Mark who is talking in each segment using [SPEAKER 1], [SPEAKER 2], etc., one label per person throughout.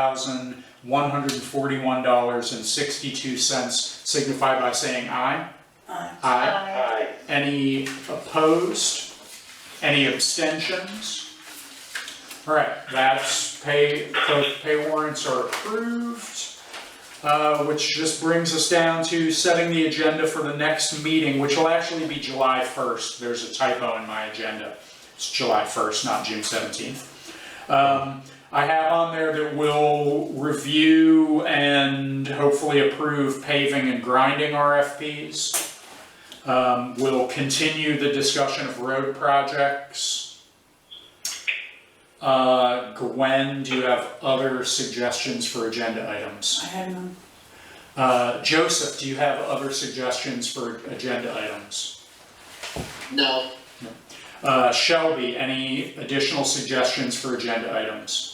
[SPEAKER 1] thousand one hundred and forty-one dollars and sixty-two cents, signify by saying aye. Aye. Aye.
[SPEAKER 2] Aye.
[SPEAKER 1] Any opposed? Any abstentions? All right, that's pay, both pay warrants are approved, uh, which just brings us down to setting the agenda for the next meeting, which will actually be July 1st. There's a typo in my agenda. It's July 1st, not June 17th. Um, I have on there that we'll review and hopefully approve paving and grinding RFPs. Um, We'll continue the discussion of road projects. Uh, Gwen, do you have other suggestions for agenda items?
[SPEAKER 3] I had none.
[SPEAKER 1] Uh, Joseph, do you have other suggestions for agenda items?
[SPEAKER 2] No.
[SPEAKER 1] Uh, Shelby, any additional suggestions for agenda items?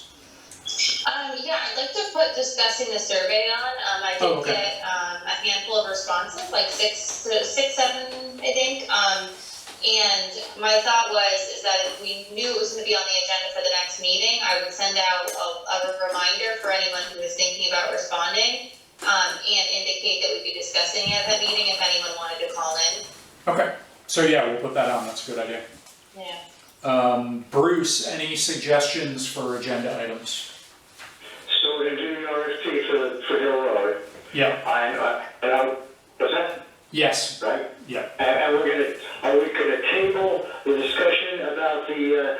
[SPEAKER 4] Um, yeah, I'd like to put discussing the survey on, um, I
[SPEAKER 1] Oh,
[SPEAKER 4] did
[SPEAKER 1] okay.
[SPEAKER 4] get, um, a handful of responses, like six, six, seven, I think, um, and my thought was, is that if we knew it was gonna be on the agenda for the next meeting, I would send out a, a reminder for anyone who was thinking about responding, um, and indicate that we'd be discussing it at that meeting if anyone wanted to call in.
[SPEAKER 1] Okay, so yeah, we'll put that on, that's a good idea.
[SPEAKER 4] Yeah.
[SPEAKER 1] Um, Bruce, any suggestions for agenda items?
[SPEAKER 5] So we're doing RFP for, for Hill Road.
[SPEAKER 1] Yeah,
[SPEAKER 5] I, I, and I, was that
[SPEAKER 1] yes,
[SPEAKER 5] right?
[SPEAKER 1] yeah,
[SPEAKER 5] And, and we're gonna, are we gonna table the discussion about the, uh,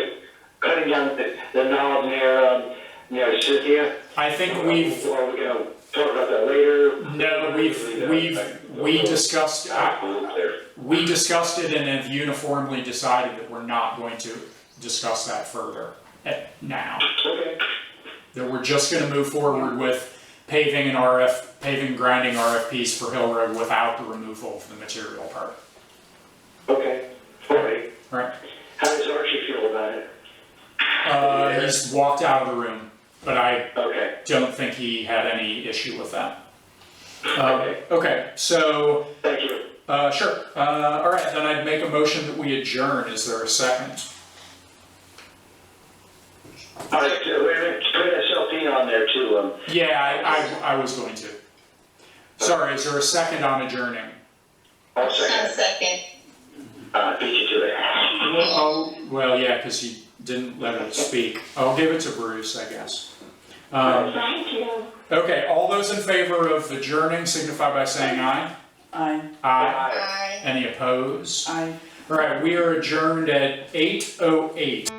[SPEAKER 5] the cutting down the, the knob near, um, near Cynthia?
[SPEAKER 1] I think we've
[SPEAKER 5] Or are we gonna talk about that later?
[SPEAKER 1] No, we've, we've, we discussed, I-
[SPEAKER 5] Absolutely.
[SPEAKER 1] we discussed it and have uniformly decided that we're not going to discuss that further at now.
[SPEAKER 5] Okay,
[SPEAKER 1] That we're just gonna move forward with paving and RF, paving grinding RFPs for Hill Road without the removal of the material part.
[SPEAKER 5] okay, all right.
[SPEAKER 1] All right.
[SPEAKER 5] How does Archie feel about it?
[SPEAKER 1] Uh, he's walked out of the room, but I
[SPEAKER 5] Okay,
[SPEAKER 1] don't think he had any issue with that. Uh,
[SPEAKER 5] Okay.
[SPEAKER 1] okay, so,
[SPEAKER 5] thank you.
[SPEAKER 1] uh, sure, uh, all right, then I'd make a motion that we adjourn, is there a second?
[SPEAKER 5] All right, so we're gonna put SLP on there too, um,
[SPEAKER 1] Yeah, I, I, I was going to. Sorry, is there a second on adjourning?
[SPEAKER 5] I'll
[SPEAKER 4] One
[SPEAKER 5] second,
[SPEAKER 4] second.
[SPEAKER 5] uh, beat you to it.
[SPEAKER 1] Oh, well, yeah, because you didn't let him speak. I'll give it to Bruce, I guess. Um,
[SPEAKER 6] Thank you.
[SPEAKER 1] okay, all those in favor of adjourning signify by saying aye.
[SPEAKER 3] I,
[SPEAKER 1] Aye.
[SPEAKER 4] Bye.
[SPEAKER 1] Any opposed?
[SPEAKER 3] I.
[SPEAKER 1] All right, we are adjourned at eight oh eight.